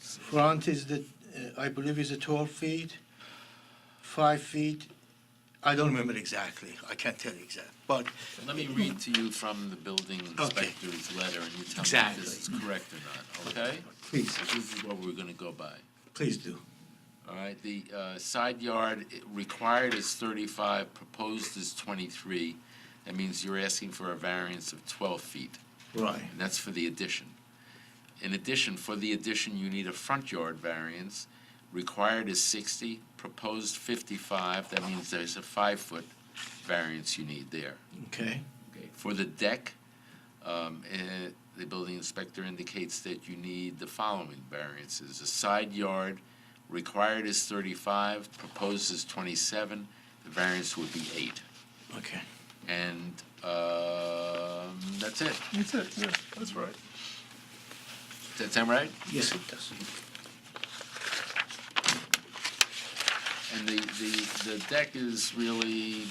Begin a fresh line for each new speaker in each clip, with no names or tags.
Front is the, uh, I believe is a 12 feet, 5 feet, I don't remember exactly, I can't tell you exact, but
Let me read to you from the building
Okay.
inspector's letter, and you tell me if
Exactly.
this is correct or not, okay?
please,
So This is what we're gonna go by,
please do.
all right? The uh, side yard i- required is thirty-five, proposed is twenty-three. That means you're asking for a variance of twelve feet,
Right,
and that's for the addition. In addition, for the addition, you need a front yard variance. Required is sixty, proposed fifty-five, that means there's a five-foot variance you need there.
okay,
Okay, For the deck, um, eh, the building inspector indicates that you need the following variances. A side yard required is thirty-five, proposed is twenty-seven, the variance would be eight.
okay.
And, um, that's it.
That's it, yeah, that's right.
Does that sound right?
Yes, it does.
And the, the, the deck is really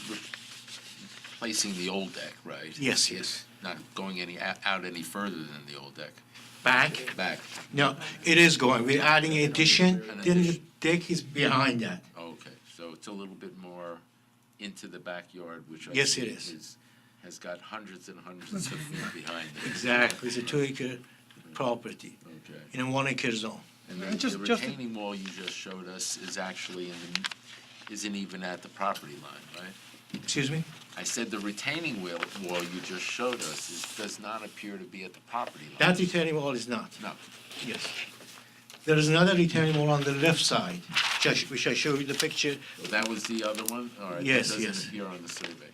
replacing the old deck, right?
Yes,
It's Not going any, out any further than the old deck,
Back,
back,
no, it is going, we're adding addition,
An
then the
addition.
deck is behind that.
Oh, Okay, so it's a little bit more into the backyard, which I
Yes, it
think
is.
Has got hundreds and hundreds of feet behind it.
Exactly, it's a two-acre property
Okay.
in a one-acre zone.
And
Uh,
then the
just- just-
retaining wall you just showed us is actually in, the- isn't even at the property line, right?
Excuse me?
I said the retaining wall, wall you just showed us is, does not appear to be at the property line.
That retaining wall is not.
No,
Yes. There is another retaining wall on the left side, which I sh- which I show you the picture.
that was the other one, all right. that
Yes, yes.
Doesn't appear on the survey.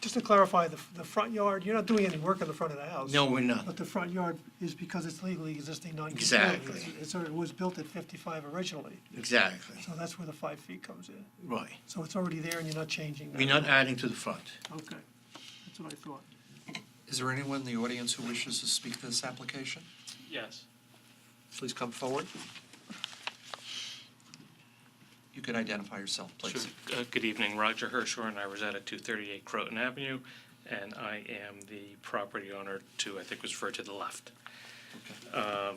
Just to clarify, the, the front yard, you're not doing any work on the front of the house.
No, we're not.
But the front yard is because it's legally existing non-conforming.
Exactly.
It's- It's, it was built at 55 originally,
Exactly,
so that's where the five feet comes in.
right.
So it's already there and you're not changing that.
We're not adding to the front.
Okay, that's what I thought.
Is there anyone in the audience who wishes to speak to this application?
Yes.
Please come forward. You can identify yourself,
Sure.
please.
Uh, Good evening, Roger Hirschhorn. I reside at 238 Croton Avenue, and I am the property owner to, I think was referred to the left. Um, uh,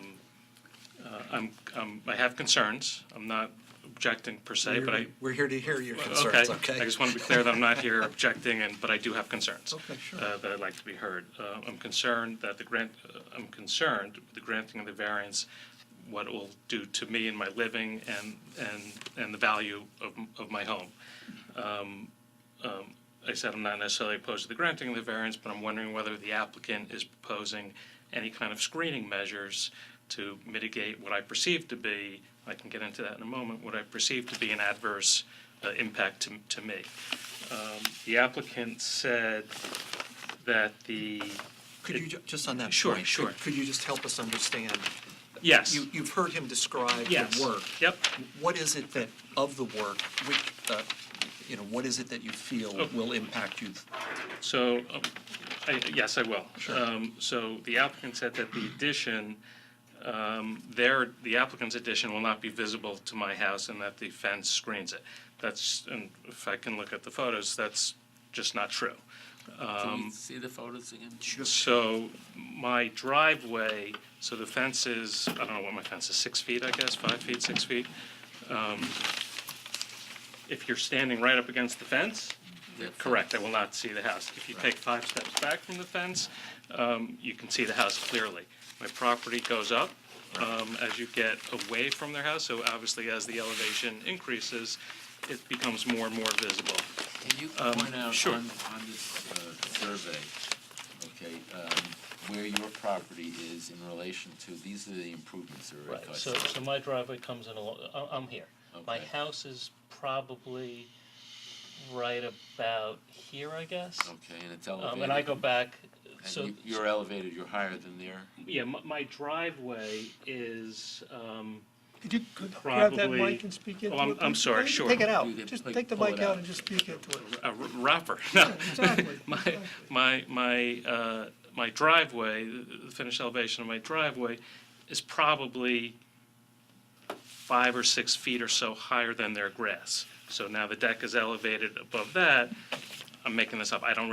I'm, I'm- I have concerns. I'm not objecting per se, but I,
We're here to hear your
Okay,
concerns, okay?
I just want to be clear that I'm not here objecting, and, but I do have concerns.
Okay, sure.
uh, That I'd like to be heard. Uh, I'm concerned that the grant, uh, I'm concerned with the granting of the variance, what it will do to me and my living and, and, and the value of, m- of my home. Um, um, I said I'm not necessarily opposed to the granting of the variance, but I'm wondering whether the applicant is proposing any kind of screening measures to mitigate what I perceive to be, I can get into that in a moment, what I perceive to be an adverse uh, impact to, to me. Um, The applicant said that the,
Could you, ju- just on that point?
Sure,
could-
sure.
Could you just help us understand?
yes,
You, you've heard him describe
yes.
the work.
Yep,
What is it that, of the work, which, uh, you know, what is it that you feel
Oh.
will impact you?
so, um, I- yes, I will.
Sure.
Um, So the applicant said that the addition, um, their, the applicant's addition will not be visible to my house and that the fence screens it. That's, and if I can look at the photos, that's just not true.
Can we
Um,
see the photos again?
So my driveway, so the fence is, I don't know what my fence is, six feet, I guess, five feet, six feet. Um, If you're standing right up against the fence,
The
correct, I will not see the house. If you take five steps back from the fence, um, you can see the house clearly. My property goes up um, as you get away from their house, so obviously as the elevation increases, it becomes more and more visible.
Can you
Um,
point out
sure.
on, on this uh, survey, okay, um, where your property is in relation to, these are the improvements that are
Right, so,
requested?
so my driveway comes in along, I- I'm here. My
Okay.
house is probably right about here, I guess.
Okay, and it's
Um, and I
elevated,
go back, so,
and you- you're elevated, you're higher than there?
Yeah, my- my driveway is, um,
Could you could grab that
Probably-
mic and speak into it?
Oh, I'm- I'm
please?
sorry,
Take-
sure.
Take it out,
You can
just
click-
take the
pull
mic
it out.
out and just speak into it.
a r- wrapper. No.
Exactly.
my my my uh, my driveway, the finished elevation of my driveway, is probably five or six feet or so higher than their grass. So now the deck is elevated above that. I'm making this up. I don't